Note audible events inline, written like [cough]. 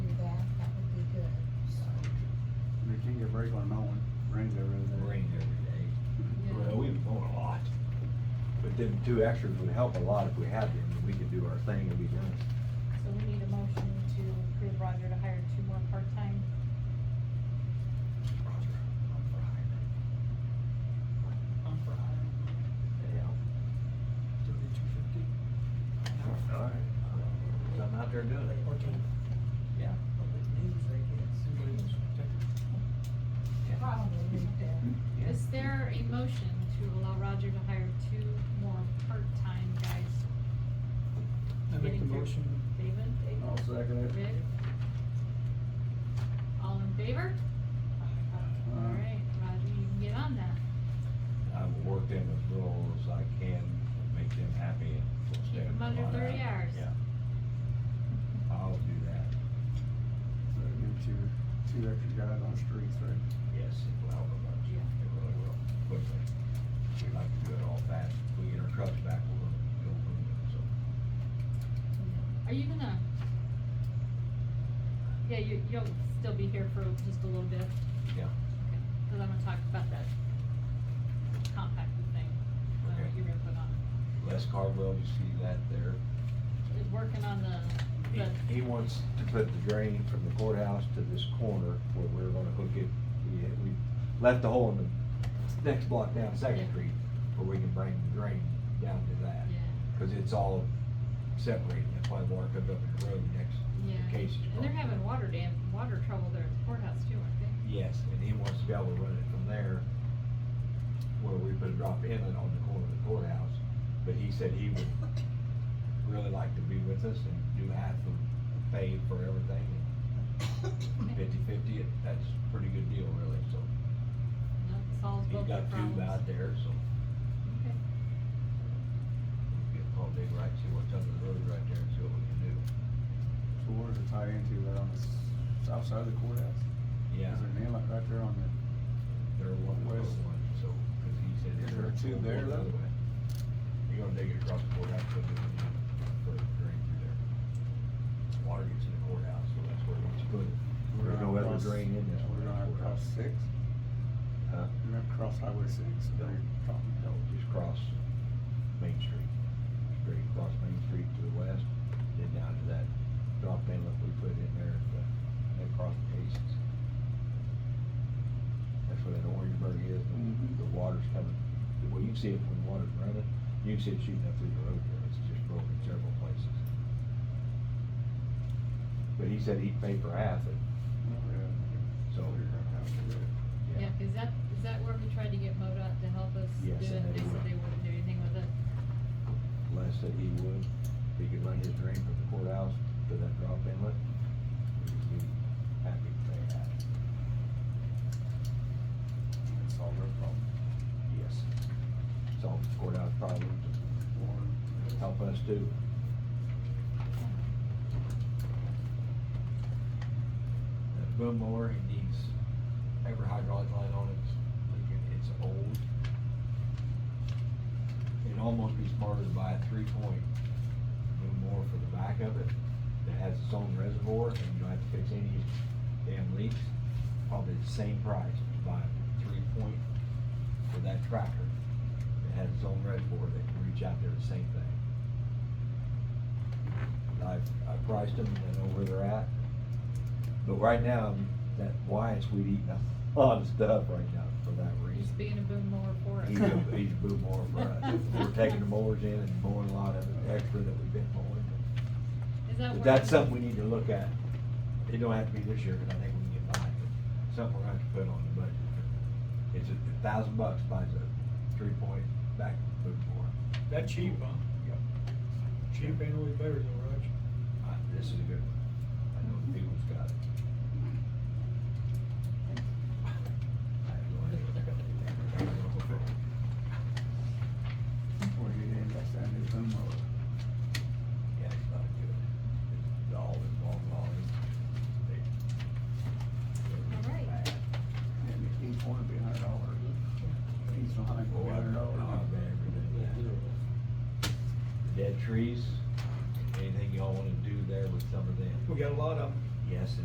regular mowing, rains every other day. rain every day. Well, we've mown a lot. But them two extras would help a lot if we had them, and we could do our thing and be done. So we need a motion to approve Roger to hire two more part-time. Roger, I'm for hiring. I'm for hiring Yeah. thirty-two fifty. All right. So I'm out there doing it. Okay. Yeah. Anybody wants to take it? Yeah. Is there a motion to allow Roger to hire two more part-time guys? I make the Getting through. motion. David? I'll second it. Rick? All in favor? Alright, Roger, you can get on that. I've worked them as little as I can, make them happy and. we'll Keep stay them on under that. 30 hours. Yeah. I'll do that. So it'd give two, two extra guys on the streets, right? Yes, it will help a bunch. Yeah. It really will, quickly. We like to do it all fast. We get our trucks back, we'll go boom, so. Are you gonna? Yeah, you, you'll still be here for just a little bit, Yeah. cause I'm gonna talk about that compact thing, uh, Okay. you're gonna put on. Les Cardwell, you see that there? Is working on the, He- the, He wants to put the drain from the courthouse to this corner where we're gonna hook it. We, we left the hole in the next block down Second Yeah. Street where we can bring the drain down to that. yeah, Cause it's all separated. That's why the water comes up in the road next to yeah. Casey's. And they're property. having water dam, water trouble there at the courthouse too, aren't they? Yes, and he wants to be able to run it from there where we put a drop inlet on the corner of the courthouse. But he said he would really like to be with us and do half of pay for everything. Fifty-fifty, that's a pretty good deal really, so. No, it solves He's both their got problems. two out there, so. Okay. we'll Get called Dave Wright, see what's under the road right there and see what we can do. So where does it tie into, right on the s- south side of the courthouse? Is Yeah. there an inlet right there on the, There are one, Where's- other one, so, cause he said. Is it's there two going there, the other though? way. You're gonna dig it across the courthouse, put it in, put a drain through there. Water gets in the courthouse, so that's where it's put. it. we're There's no gonna other cross- drain in this We're one. gonna have to cross six, Huh? we're gonna have to cross highway six, so No. they're talking No, about. uh, just cross Main Street, straight across Main Street to the west, then down to that drop inlet we put in there, at the, at cross Casey's. That's where that Orangeburg is, Mhm. the, the water's coming, well, you can see it when the water's running, you can see it shooting up through the road there, it's just broken several places. But he said he'd pay for half it, So we're gonna have to do it. Yeah, is that, is that where we tried to get MoDOT to help us do it? Yes, They said and they wouldn't. they wouldn't do anything with it. Les said he would, he could run his drain from the courthouse to that drop inlet. He'd be happy to pay that. It's all their problem. Yes. Solve the courthouse problems, Or- help us too. That boom mower, it needs every hydraulic line on it, leaking, it's old. It'd almost be smarter to buy a three-point boom mower for the back of it that has its own reservoir and you don't have to fix any damn leaks. Probably the same price to buy a three-point for that tractor that has its own reservoir that can reach out there, the same thing. And I've, I priced them and know where they're at. But right now, that Wyatt's weed eating a [laughs] lot of stuff right now for that You're reason. being a boom mower for us. He's a, he's a boom mower for us. We're taking the mowers in and mowing a lot of it extra that we've been mowing. Is that But where? that's something we need to look at. It don't have to be this year, because I think we can get by, but something we're gonna have to put on the budget. It's a thousand bucks buys a three-point back boom mower. That cheap, huh? Yep. Cheap ain't always better though, Roger. Uh, This is a good one. I know the people's got it. I have no idea. Before you get in, that's that new boom mower. Yeah, it's not good. It's all in long line. They- All right. Bad. And each one would be a hundred dollars. Each one would Oh, be a I hundred know, dollars. I bet every day. Dead trees, anything y'all wanna do there with some of them? We got a lot of them. Yes,